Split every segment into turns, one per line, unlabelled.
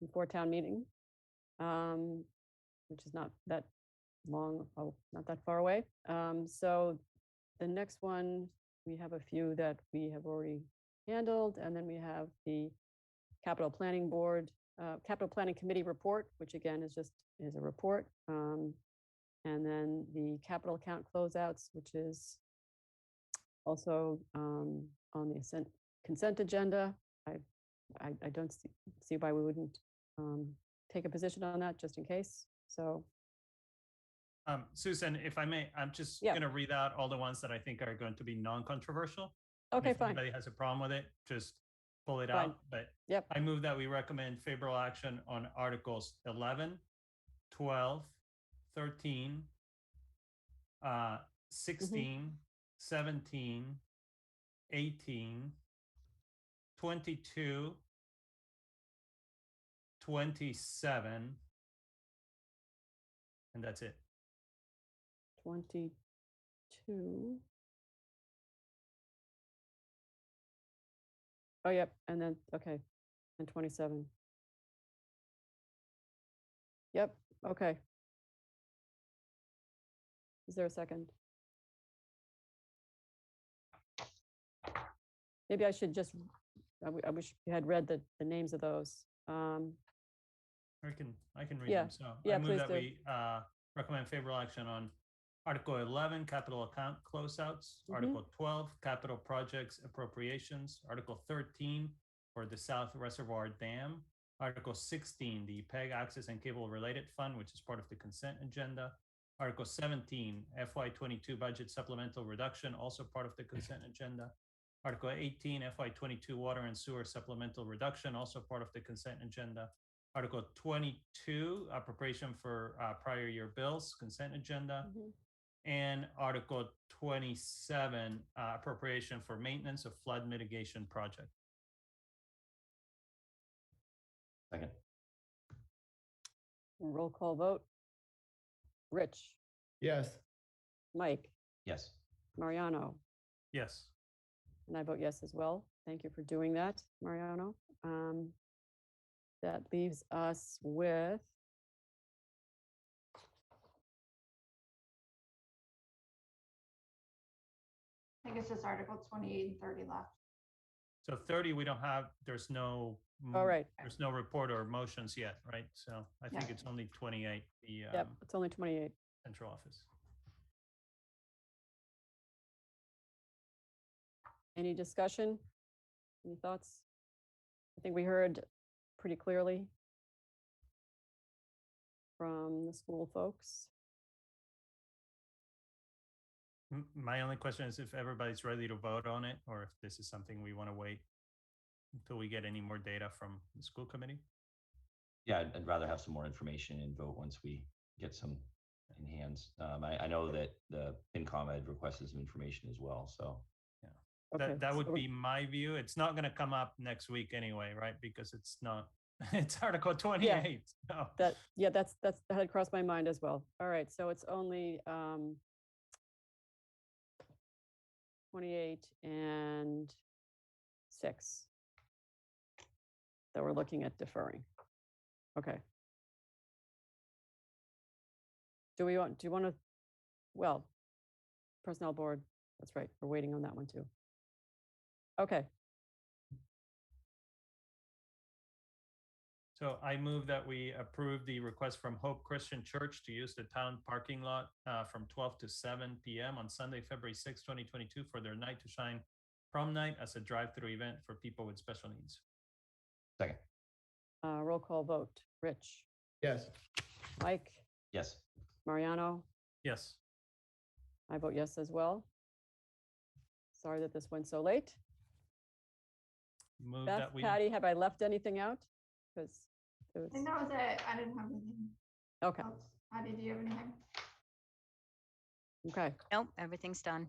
before town meeting, um, which is not that long, oh, not that far away. Um, so the next one, we have a few that we have already handled, and then we have the Capital Planning Board, uh, Capital Planning Committee report, which again is just, is a report. Um, and then the capital account closeouts, which is also, um, on the consent, consent agenda. I, I, I don't see, see why we wouldn't, um, take a position on that just in case. So,
Um, Susan, if I may, I'm just
Yeah.
going to read out all the ones that I think are going to be non-controversial. And
okay,
If
fine.
anybody has a problem with it, just pull it
Fine.
out. But
Yep.
I move that we recommend favorable action on Articles 11, 12, 13, uh,
Mm-hmm.
16, 17, 18, 22, 27, and that's it.
22. Oh, yep, and then, okay, and 27. Yep, okay. Is there a second? Maybe I should just, I w- I wish you had read the, the names of those. Um,
I can, I can read
Yeah.
them. So
Yeah,
I move
please
that
do.
we uh, recommend favorable action on Article 11, capital account closeouts,
Mhm.
Article 12, capital projects appropriations, Article 13 for the South Reservoir Dam, Article 16, the PEG access and cable related fund, which is part of the consent agenda, Article 17, FY22 budget supplemental reduction, also part of the consent agenda, Article 18, FY22 water and sewer supplemental reduction, also part of the consent agenda, Article 22, appropriation for uh, prior year bills, consent agenda,
mhm,
and Article 27, uh, appropriation for maintenance of flood mitigation project.
Second.
Roll call vote. Rich,
Yes,
Mike,
Yes.
Mariano,
Yes.
And I vote yes as well. Thank you for doing that, Mariano. Um, That leaves us with
I guess it's Article twenty-eight and thirty left.
So 30, we don't have, there's no.
All
mm,
right.
There's no report or motions yet, right? So I think
Yeah.
it's only 28, the
Yep,
um,
it's only 28.
central office.
Any discussion? Any thoughts? I think we heard pretty clearly from the school folks.
M- My only question is if everybody's ready to vote on it, or if this is something we want to wait until we get any more data from the school committee?
Yeah, I'd, I'd rather have some more information and vote once we get some in hands. Um, I, I know that the FinCom had requested some information as well, so.
Okay,
That, that
so
would
we-
be my view. It's not going to come up next week anyway, right? Because it's not, it's Article 28. so-
That, yeah, that's, that's, that had crossed my mind as well. All right, so it's only um 28 and 6 that we're looking at deferring. Okay. Do we want, do you want to, well, Personnel Board, that's right, we're waiting on that one too. Okay,
So I move that we approve the request from Hope Christian Church to use the town parking lot uh, from 12 to 7 p.m. on Sunday, February 6, 2022 for their Night to Shine prom night as a drive-through event for people with special needs.
Second.
uh, roll call vote. Rich,
yes,
Mike,
Yes.
Mariano?
Yes.
I vote yes as well. Sorry that this went so late.
Move
Beth,
that we,
Patty, have I left anything out? Because it
I think
was,
that was it. I didn't have anything
okay,
else. Patty, do you have anything?
okay.
Nope, everything's done.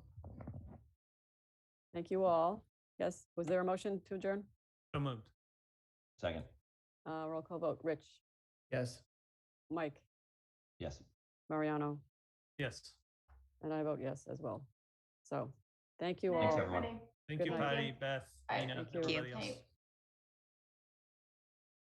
Thank you all. Yes, was there a motion to adjourn?
so moved.
Second.
Uh, roll call vote. Rich,
yes.
Mike,
Yes.
Mariano,
Yes.
and I vote yes as well. So, thank you
Good night,
Thanks,
all.
everyone.
everybody.
Thank
Good
you,
night.
Patty, Beth,
Bye.
Nina,
Thank you.
everybody
Thank
else.
you.